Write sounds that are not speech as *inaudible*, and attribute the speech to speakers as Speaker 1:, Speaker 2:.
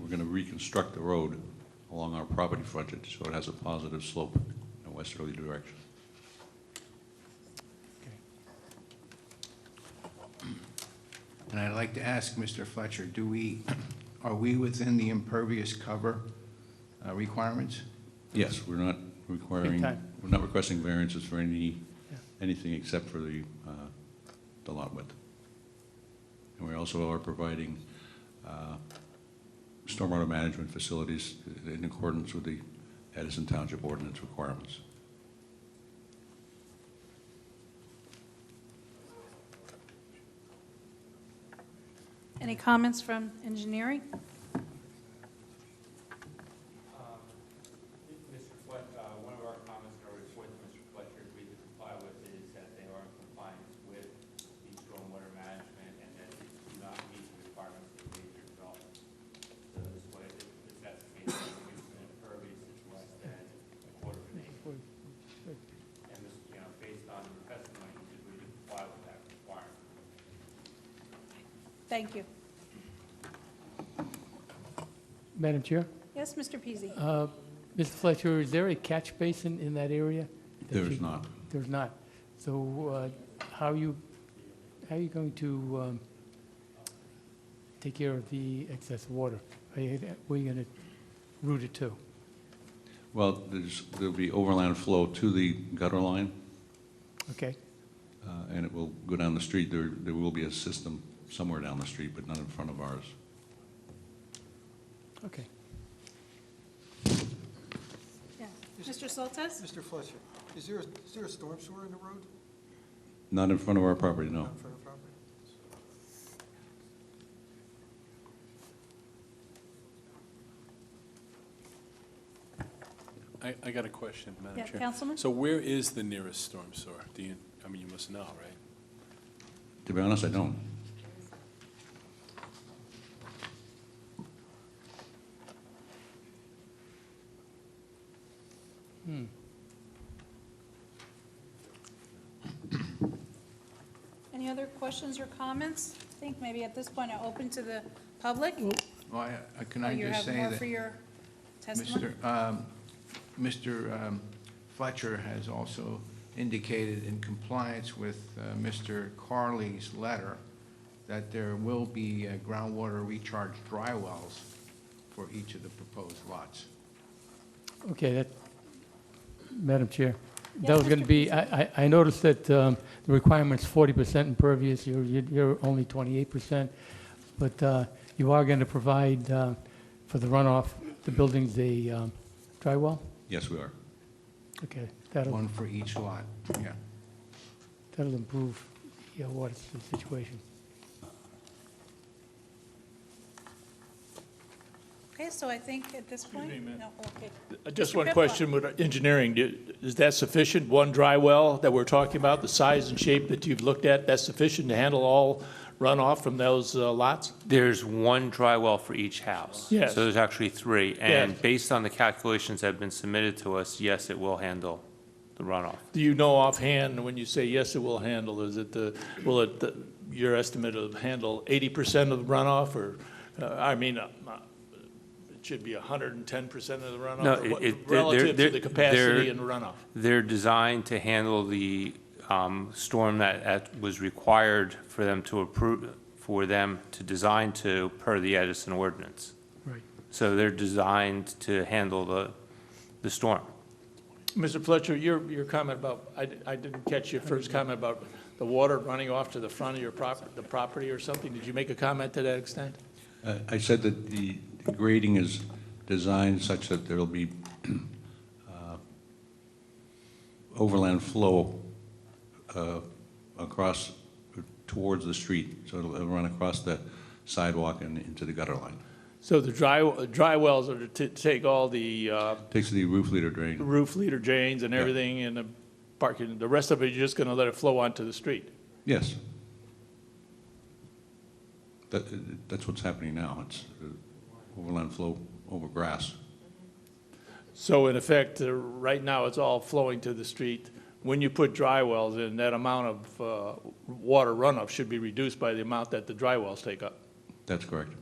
Speaker 1: we're going to reconstruct the road along our property frontage, so it has a positive slope in a westerly direction.
Speaker 2: And I'd like to ask Mr. Fletcher, do we, are we within the impervious cover uh, requirements?
Speaker 1: Yes, we're not requiring,
Speaker 3: time.
Speaker 1: we're not requesting variances for any,
Speaker 3: Yeah.
Speaker 1: anything except for the, uh, the lot width. And we also are providing uh, stormwater management facilities in accordance with the Edison Township ordinance requirements.
Speaker 4: Any comments from engineering?
Speaker 5: Um, Mr. Fletcher, uh, one of our comments in our report to Mr. Fletcher agreed to comply with is that they are in compliance with the stormwater management and that they do not meet the requirements of major development. So this way, if if that's the case, it's an impervious that's less than a quarter of an acre. And this, you know, based on the testimony, he agreed to comply with that requirement.
Speaker 4: Thank you.
Speaker 3: Madam Chair,
Speaker 4: Yes, Mr. Peasy?
Speaker 3: uh, Mr. Fletcher, is there a catch basin in that area? that
Speaker 1: There is
Speaker 3: you-
Speaker 1: not.
Speaker 3: There's not. So uh, how are you, how are you going to um, take care of the excess water? Are you- Where are you going to route it to?
Speaker 1: Well, there's, there'll be overland flow to the gutter line,
Speaker 3: Okay,
Speaker 1: uh, and it will go down the street. There, there will be a system somewhere down the street, but not in front of ours.
Speaker 3: okay.
Speaker 4: Yeah. Mr. Soltes?
Speaker 6: Mr. Fletcher, is there, a- is there a storm sewer in the road?
Speaker 1: Not in front of our property, no.
Speaker 6: Not in front of property?
Speaker 7: I, I got a question, Madam
Speaker 4: Yeah,
Speaker 7: Chair.
Speaker 4: Councilman?
Speaker 7: So where is the nearest storm sewer? Do you, I mean, you must know, right?
Speaker 1: To be honest, I don't.
Speaker 3: Hmm.
Speaker 4: Any other questions or comments? I think maybe at this point, i open to the public.
Speaker 2: Well, Oh, I- I- can
Speaker 4: Oh,
Speaker 2: I
Speaker 4: you
Speaker 2: just
Speaker 4: have
Speaker 2: say
Speaker 4: more
Speaker 2: that
Speaker 4: for your testimony?
Speaker 2: Mr. um, Mr. um, Fletcher has also indicated in compliance with uh, Mr. Carley's letter that there will be uh, groundwater recharge dry wells for each of the proposed lots.
Speaker 3: Okay, that, Madam Chair, that
Speaker 4: Yes,
Speaker 3: was going to
Speaker 4: Mr.
Speaker 3: be, I, I I noticed that um, the requirement's forty percent impervious, you're, you're- you're only twenty-eight percent, but uh, you are going to provide uh, for the runoff, the building's a um, dry well?
Speaker 1: Yes, we are.
Speaker 3: Okay, that'll,
Speaker 2: One for each lot, yeah.
Speaker 3: that'll improve your water situation.
Speaker 4: Okay, so I think at this point? No, okay.
Speaker 8: Uh, Just
Speaker 4: Mr.
Speaker 8: one
Speaker 4: Pipla.
Speaker 8: question with engineering. Do- Is that sufficient, one dry well that we're talking about, the size and shape that you've looked at, that's sufficient to handle all runoff from those uh, lots?
Speaker 5: There's one dry well for each house.
Speaker 8: Yes.
Speaker 5: So there's actually three. And
Speaker 8: Yes.
Speaker 5: based on the calculations that have been submitted to us, yes, it will handle the runoff.
Speaker 8: Do you know offhand, when you say yes, it will handle, is it the, will it, the- your estimate of handle eighty percent of the runoff, or, uh, I mean, uh, uh, it should be hundred and ten percent of the runoff?
Speaker 5: No,
Speaker 8: or
Speaker 5: it-
Speaker 8: what-
Speaker 5: it- they're-
Speaker 8: Relative
Speaker 5: they're-
Speaker 8: to the
Speaker 5: they're-
Speaker 8: capacity and runoff?
Speaker 5: They're designed to handle the um, storm that- that was required for them to approve, for them to design to per the Edison ordinance.
Speaker 3: Right.
Speaker 5: So they're designed to handle the, the storm.
Speaker 8: Mr. Fletcher, your, your comment about, I, I didn't catch your first comment about the water running off to the front of your prop, the property or something. Did you make a comment to that extent?
Speaker 1: Uh, I said that the grading is designed such that there'll be *clears throat* uh, overland flow uh, across, towards the street, so it'll it'll run across the sidewalk and into the gutter line.
Speaker 8: So the dry, dry wells are to t- take all the uh,
Speaker 1: Takes the roof leader drain.
Speaker 8: roof leader drains and everything and the parking, the rest of it, you're just going to let it flow onto the street?
Speaker 1: Yes. That, that's what's happening now. It's uh, overland flow over grass.
Speaker 8: So in effect, uh, right now, it's all flowing to the street. When you put dry wells in, that amount of uh, water runoff should be reduced by the amount that the dry wells take up.
Speaker 1: That's correct.